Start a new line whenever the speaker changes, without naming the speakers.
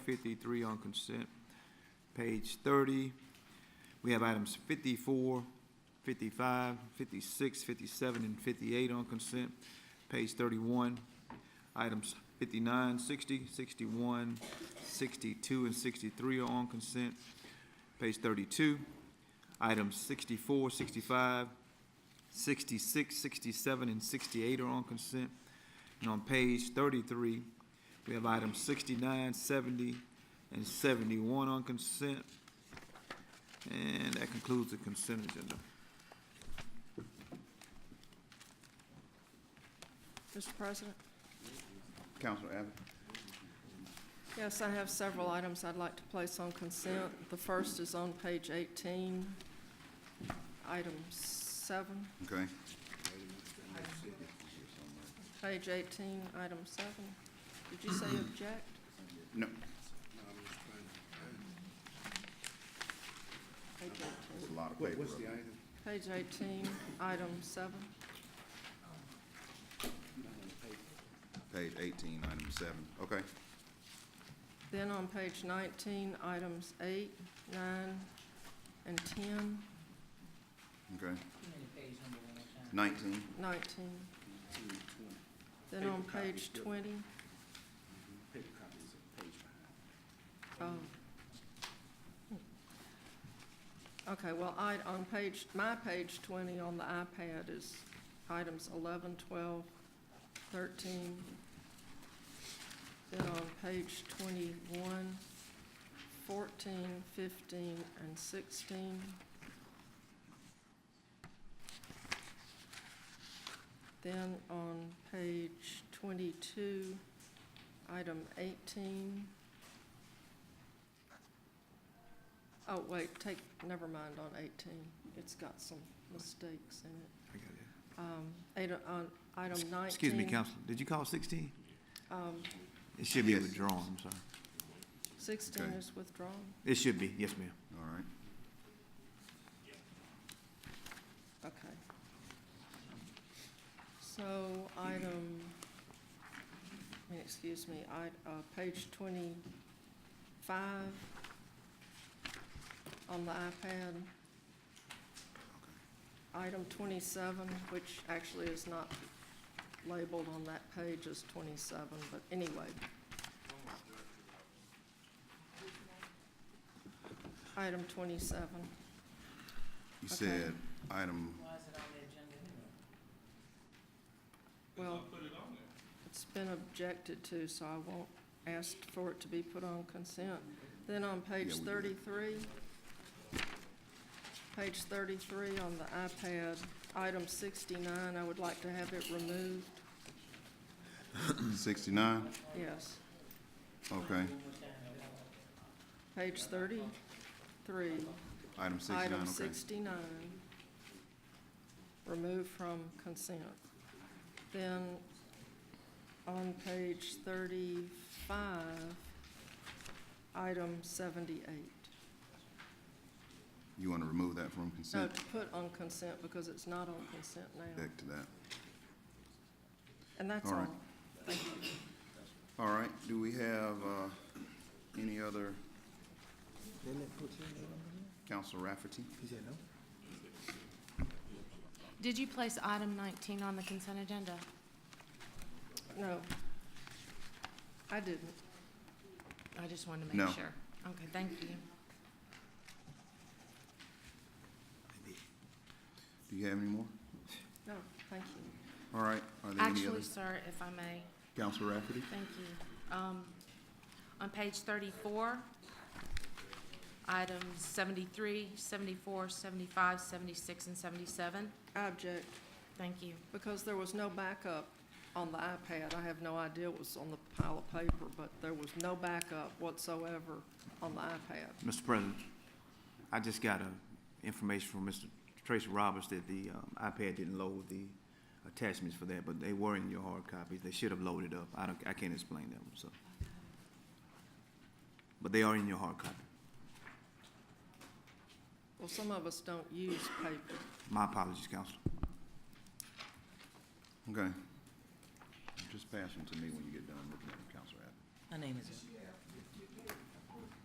53 on consent. Page 30, we have items 54, 55, 56, 57, and 58 on consent. Page 31, items 59, 60, 61, 62, and 63 are on consent. Page 32, items 64, 65, 66, 67, and 68 are on consent. And on page 33, we have items 69, 70, and 71 on consent. And that concludes the consent agenda.
Mr. President?
Counselor Abbott?
Yes, I have several items I'd like to place on consent. The first is on page 18, item 7,
Okay.
page 18, item 7. Did you say object?
No,
Page 18.
it's a lot of paper. up there.
Page 18, item 7.
Page eighteen, item seven. Okay,
Then on page 19, items 8, 9, and 10,
okay. Nineteen,
19. Then on page 20. Oh. Okay, well, I, on page, my page 20 on the iPad is items 11, 12, 13. Then on page 21, 14, 15, and 16. Then on page 22, item 18. Oh, wait, take, never mind on 18. It's got some mistakes in it.
I got it.
Um, Item, on item 19.
Excuse me, Counselor, did you call 16?
um,
It should be
Yes.
withdrawn, I'm sorry.
16
Okay.
is withdrawn.
It should be, yes, ma'am.
all right.
Okay. So item, I mean, excuse me, I, uh, page twenty-five on the iPad. Item twenty-seven, which actually is not labeled on that page as twenty-seven, but anyway. Item twenty-seven.
You
Okay.
said item,
Well, it's been objected to, so I won't ask for it to be put on consent. Then on page
Yeah, we did.
thirty-three, page thirty-three on the iPad, item sixty-nine, I would like to have it removed.
sixty-nine?
Yes,
Okay,
page thirty-three,
item sixty-nine,
item
okay.
sixty-nine, removed from consent. Then on page thirty-five, item seventy-eight.
You want to remove that from
No,
consent?
to put on consent because it's not on consent now.
Back to that.
And that's
all
all.
right. All right, do we have, uh, any other? Counselor Rafferty?
Did you place item 19 on the consent agenda?
No. I didn't.
I just wanted to
No.
make sure. Okay, thank you.
Do you have any more?
No, thank you.
All right, are there any
Actually,
others?
sir, if I may,
Counselor Rafferty?
thank you. Um, On page 34, items 73, 74, 75, 76, and 77.
I object
Thank you.
because there was no backup on the iPad. I have no idea what was on the pile of paper, but there was no backup whatsoever on the iPad.
Mr. President, I just got a information from Mr. Tracy Roberts that the um, iPad didn't load the attachments for that, but they were in your hard copies. They should have loaded up. I don't, I can't explain them, so. But they are in your hard copy.
Well, some of us don't use paper.
My apologies, Counselor.
Okay. Just pass them to me when you get done looking at them, Counselor Abbott.
My name is.